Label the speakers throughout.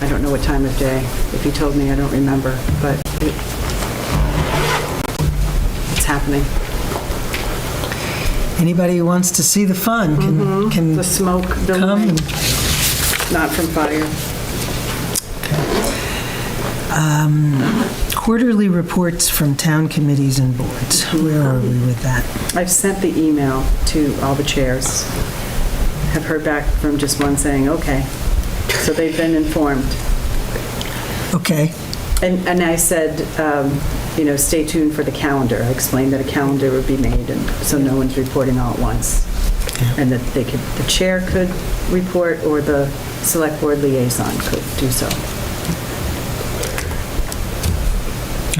Speaker 1: I don't know what time of day. If he told me, I don't remember, but it- it's happening.
Speaker 2: Anybody who wants to see the fun
Speaker 3: Mm-hmm.
Speaker 2: can, can
Speaker 1: The smoke
Speaker 2: come.
Speaker 1: billowing, not from fire.
Speaker 2: Quarterly reports from town committees and boards. Where are we with that?
Speaker 1: I've sent the email to all the chairs. Have heard back from just one saying, okay. So they've been informed.
Speaker 2: Okay,
Speaker 1: And, and I said, um, you know, stay tuned for the calendar. I explained that a calendar would be made, and so no one's reporting all at once. And that they could, the chair could report, or the select board liaison could do so.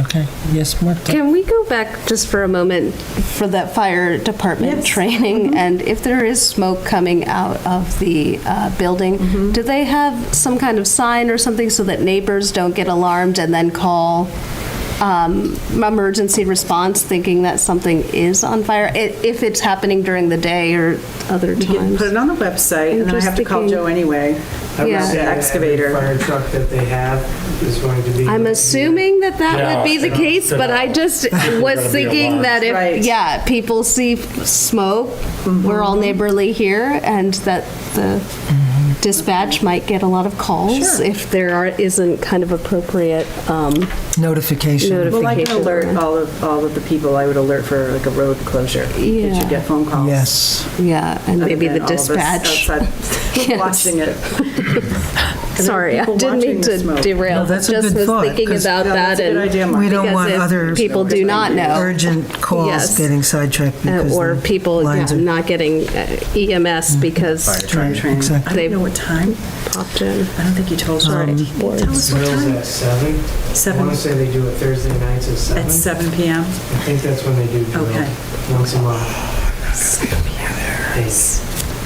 Speaker 2: okay. Yes, Martha?
Speaker 3: Can we go back just for a moment for that fire department
Speaker 1: Yes.
Speaker 3: training? And if there is smoke coming out of the uh, building, do they have some kind of sign or something so that neighbors don't get alarmed and then call um, emergency response thinking that something is on fire? i- If it's happening during the day or other
Speaker 1: You can
Speaker 3: times?
Speaker 1: put it on the website, and then I have to call
Speaker 3: Interesting.
Speaker 1: Joe anyway,
Speaker 3: I would
Speaker 1: about
Speaker 3: say
Speaker 1: the excavator.
Speaker 4: Fire truck that they have is going to be.
Speaker 3: I'm assuming that that
Speaker 5: Yeah,
Speaker 3: would be the
Speaker 5: they're not-
Speaker 3: case,
Speaker 5: they're
Speaker 3: but I
Speaker 5: not-
Speaker 3: just
Speaker 5: they're
Speaker 3: was
Speaker 5: gonna be
Speaker 3: thinking
Speaker 5: alarmed.
Speaker 3: that
Speaker 1: Right. Mm-hmm.
Speaker 3: if, yeah, people see f- smoke, we're all neighborly here, and that the dispatch might get a lot of calls if there are, isn't kind of appropriate, um,
Speaker 2: Notification.
Speaker 1: Well, I can
Speaker 3: Notification.
Speaker 1: alert all of, all of the people, I would alert for like a road closure. Did
Speaker 3: Yeah.
Speaker 1: you get phone calls?
Speaker 2: Yes.
Speaker 3: yeah, and
Speaker 1: Other
Speaker 3: maybe the
Speaker 1: than all of us
Speaker 3: dispatch.
Speaker 1: outside
Speaker 3: Yes.
Speaker 1: Watching it.
Speaker 3: Sorry, I
Speaker 1: people
Speaker 3: didn't
Speaker 1: watching
Speaker 3: mean
Speaker 1: the
Speaker 3: to
Speaker 1: smoke.
Speaker 3: derail.
Speaker 2: No, that's a
Speaker 3: Just
Speaker 2: good
Speaker 3: was
Speaker 2: thought,
Speaker 3: thinking
Speaker 2: 'cause-
Speaker 3: about
Speaker 1: No,
Speaker 3: that
Speaker 1: that's a good idea,
Speaker 3: and.
Speaker 1: Mark.
Speaker 2: We don't
Speaker 3: because
Speaker 2: want
Speaker 3: if
Speaker 2: other
Speaker 3: People do not know.
Speaker 2: urgent calls
Speaker 3: Yes. Uh,
Speaker 2: getting sidetracked because the
Speaker 3: Or people yeah,
Speaker 2: lines are- Mm-hmm.
Speaker 3: not getting uh, EMS because
Speaker 2: Right,
Speaker 1: Train.
Speaker 2: Exactly.
Speaker 1: I don't know what time.
Speaker 3: popped in.
Speaker 1: I don't think you told her. Did you tell us what
Speaker 4: Drills
Speaker 1: time?
Speaker 4: at seven. I
Speaker 1: Seven,
Speaker 4: want to say they do it Thursday nights at seven.
Speaker 1: at seven PM?
Speaker 4: I think that's when they do drill.
Speaker 1: Okay.
Speaker 4: Once a month. Yes.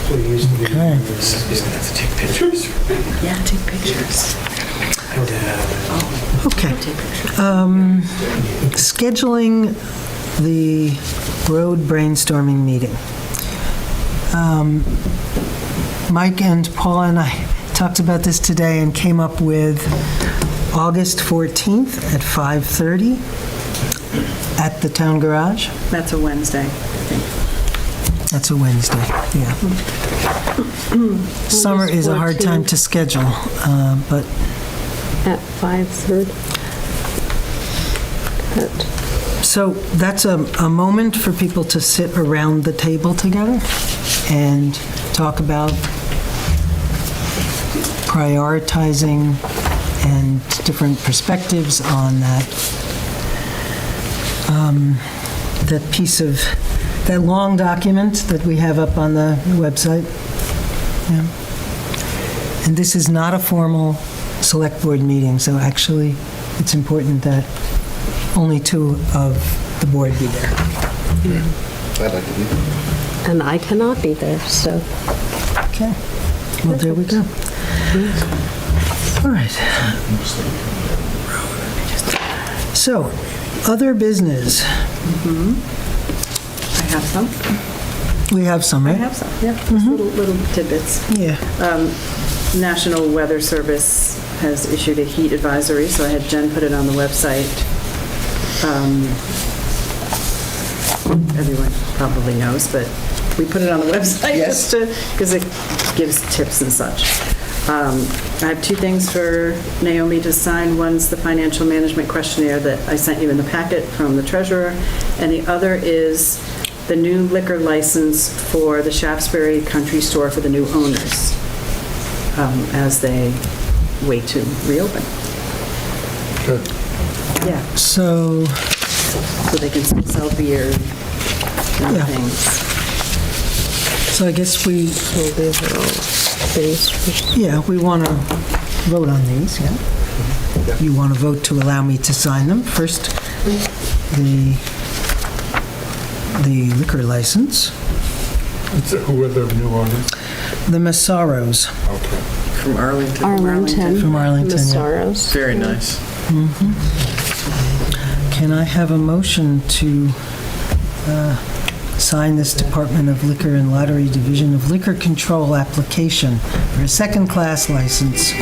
Speaker 4: What it used to be.
Speaker 2: Okay.
Speaker 1: Yeah, take pictures.
Speaker 4: And, uh,
Speaker 2: Okay.
Speaker 1: Take pictures.
Speaker 2: Um, Scheduling the road brainstorming meeting. Um, Mike and Paula and I talked about this today and came up with August 14th at 5:30 at the town garage.
Speaker 1: That's a Wednesday.
Speaker 2: That's a Wednesday, yeah. Summer is a hard time to schedule, uh, but
Speaker 3: At 5:30. At-
Speaker 2: So that's a, a moment for people to sit around the table together and talk about prioritizing and different perspectives on that, um, that piece of, that long document that we have up on the website. Yeah. And this is not a formal select board meeting, so actually, it's important that only two of the board be there.
Speaker 6: I'd like to be there.
Speaker 3: And I cannot be there, so.
Speaker 2: Okay. Well, there we go. All right. So, other business.
Speaker 1: I have some.
Speaker 2: We have some,
Speaker 1: I
Speaker 2: right?
Speaker 1: have some, yeah. Just Little little tidbits.
Speaker 2: Yeah.
Speaker 1: Um, National Weather Service has issued a heat advisory, so I had Jen put it on the website. Um, Everyone probably knows, but we put it on the website just to, because it gives tips and such. Um, I have two things for Naomi to sign. One's the financial management questionnaire that I sent you in the packet from the treasurer, and the other is the new liquor license for the Shaftesbury Country Store for the new owners um, as they wait to reopen. Yeah,
Speaker 2: So,
Speaker 1: so they can still sell beer and
Speaker 2: Yeah.
Speaker 1: things.
Speaker 2: so I guess we,
Speaker 3: well, these are all things-
Speaker 2: yeah, we want to vote on these, yeah? You want to vote to allow me to sign them? First, the, the liquor license,
Speaker 5: Who are the new owners?
Speaker 2: the Massaros
Speaker 5: Okay.
Speaker 6: From Arlington.
Speaker 3: Arlington.
Speaker 2: from Arlington. yeah.
Speaker 3: Massaros.
Speaker 6: Very nice.
Speaker 2: Can I have a motion to uh, sign this Department of Liquor and Lottery Division of Liquor Control application for a second-class license